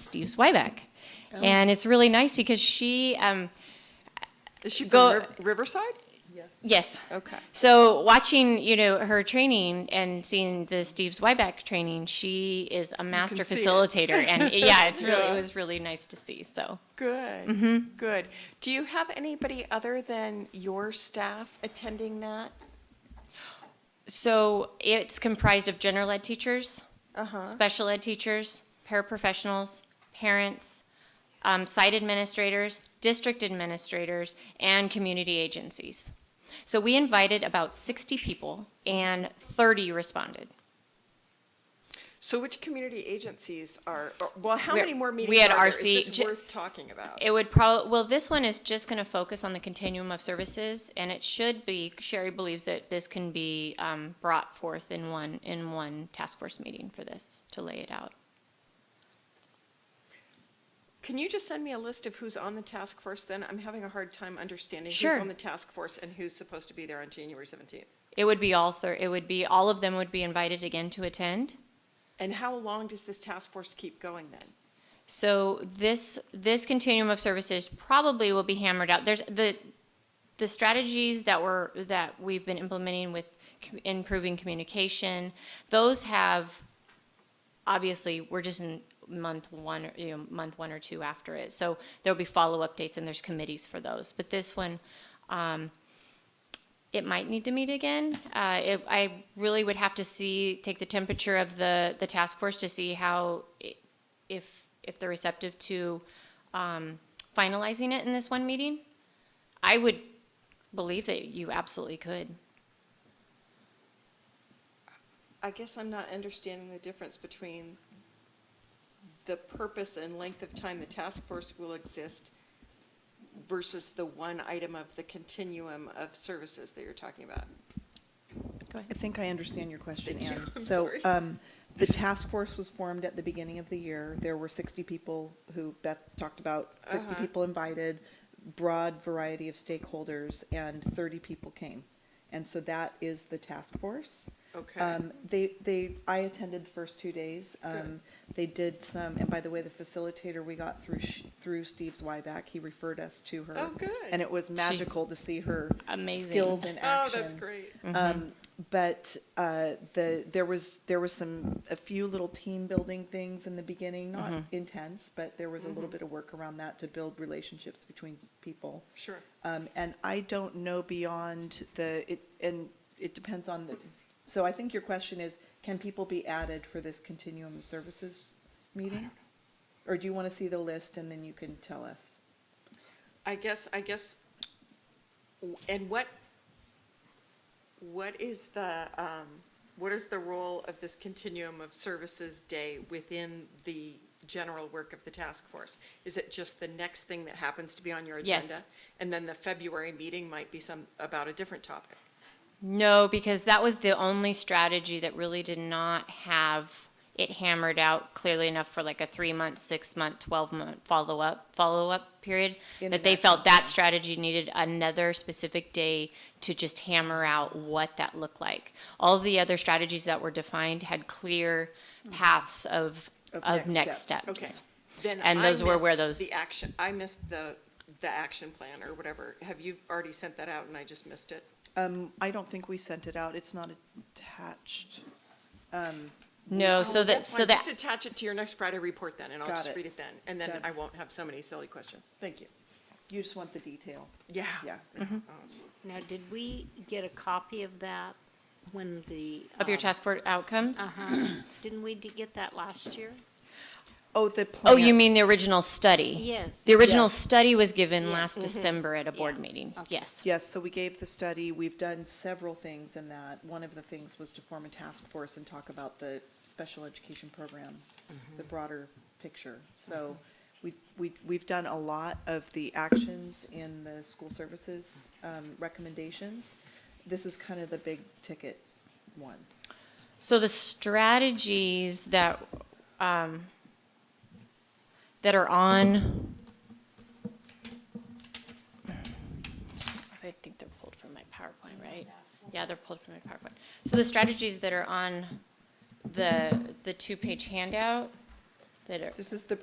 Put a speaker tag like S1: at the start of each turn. S1: Steve Swyback.
S2: Oh.
S1: And it's really nice because she, um,
S2: Is she
S1: Go-
S2: from Riv- Riverside?
S1: yes.
S2: Okay.
S1: So watching, you know, her training and seeing the Steve Swyback training, she is a master
S2: see it.
S1: facilitator. And yeah, it's really,
S2: Yeah.
S1: it was really nice to see. So
S2: Good. Good. Do you have anybody other than your staff attending that?
S1: So it's comprised of general ed teachers,
S2: Uh-huh.
S1: special ed teachers, paraprofessionals, parents, um, site administrators, district administrators, and community agencies. So we invited about 60 people, and 30 responded.
S2: So which community agencies are, or- well, how
S1: We're-
S2: many more
S1: we
S2: meetings
S1: had
S2: are there?
S1: RC
S2: Is this
S1: j-
S2: worth talking about?
S1: It would probably, well, this one is just going to focus on the continuum of services, and it should be, Sherry believes that this can be um, brought forth in one, in one task force meeting for this, to lay it out.
S2: Can you just send me a list of who's on the task force then? I'm having a hard time understanding who's
S1: Sure.
S2: on the task force and who's supposed to be there on January 17th.
S1: It would be all thir- it would be all of them would be invited again to attend.
S2: And how long does this task force keep going then?
S1: So this this continuum of services probably will be hammered out. There's the the strategies that were that we've been implementing with co- improving communication. Those have obviously we're just in month one or you know, month one or two after it. So there'll be follow up dates and there's committees for those. But this one it might need to meet again. Uh, it, I really would have to see, take the temperature of the, the task force to see how, i- if, if they're receptive to um, finalizing it in this one meeting. I would believe that you absolutely could.
S2: I guess I'm not understanding the difference between the purpose and length of time the task force will exist versus the one item of the continuum of services that you're talking about.
S1: Go ahead.
S3: I think I understand your question,
S2: Thank you.
S3: Anne.
S2: I'm
S3: So,
S2: sorry.
S3: um, the task force was formed at the beginning of the year. There were sixty people who Beth talked about, sixty
S2: Uh-huh.
S3: people invited, broad variety of stakeholders, and thirty people came. And so that is the task force.
S2: Okay.
S3: Um, they, they, I attended the first two days. Um, they did some, and by the way, the facilitator we got through, sh- through Steve Zweiback, he referred us to her.
S2: Oh, good.
S3: And it was magical to see her
S1: amazing.
S3: skills in
S2: Oh,
S3: action.
S2: that's great.
S3: Um, but uh, the there was there was some a few little team building things in the beginning, not intense, but there was a little bit of work around that to build relationships between people.
S2: Sure.
S3: Um, and I don't know beyond the it and it depends on the. So I think your question is, can people be added for this continuum of services meeting, or do you want to see the list and then you can tell us?
S2: I guess, I guess, and what, what is the, um, what is the role of this continuum of services day within the general work of the task force? Is it just the next thing that happens to be on your agenda?
S1: Yes.
S2: And then the February meeting might be some, about a different topic?
S1: No, because that was the only strategy that really did not have it hammered out clearly enough for like a three month, six month, 12 month follow up follow up period
S3: In
S1: that they
S3: that
S1: felt that strategy needed another specific day to just hammer out what that looked like. All the other strategies that were defined had clear paths of
S3: Mm-hmm. Of
S1: of next
S3: next
S1: steps.
S3: steps.
S2: Okay. Then
S1: And
S2: I
S1: those were where
S2: missed
S1: those-
S2: The action, I missed the, the action plan or whatever. Have you already sent that out and I just missed it?
S3: Um, I don't think we sent it out. It's not attached.
S1: No, Oh, so that
S2: Oh, That's
S1: so
S2: fine.
S1: that
S2: Just attach it to your next Friday report then, and I'll
S3: Got
S2: just
S3: it.
S2: read it then, and then
S3: Done.
S2: I won't have so many silly questions. Thank you.
S3: You just want the detail.
S2: Yeah.
S3: Yeah.
S1: Mm-hmm.
S2: Oh,
S4: Now, did we get a copy of that when the?
S1: of your
S4: um,
S1: task force outcomes?
S4: uh-huh. Didn't we d- get that last year?
S3: Oh, the plan.
S1: Oh, you mean the original study?
S4: Yes.
S1: The original
S3: Yes.
S1: study was given
S4: Yes. Mm-hmm.
S1: last December at a board
S4: Yeah. Oh.
S1: meeting.
S4: Okay.
S1: Yes.
S3: Yes, so we gave the study, we've done several things in that. One of the things was to form a task force and talk about the special education program,
S1: Mm-hmm.
S3: the broader picture. So we, we, we've done a lot of the actions in the school services um, recommendations. This is kind of the big ticket one.
S1: So the strategies that um, that are on. I think they're pulled from my PowerPoint, right? Yeah, they're pulled from my PowerPoint. So the strategies that are on the the two page handout that are
S3: This is the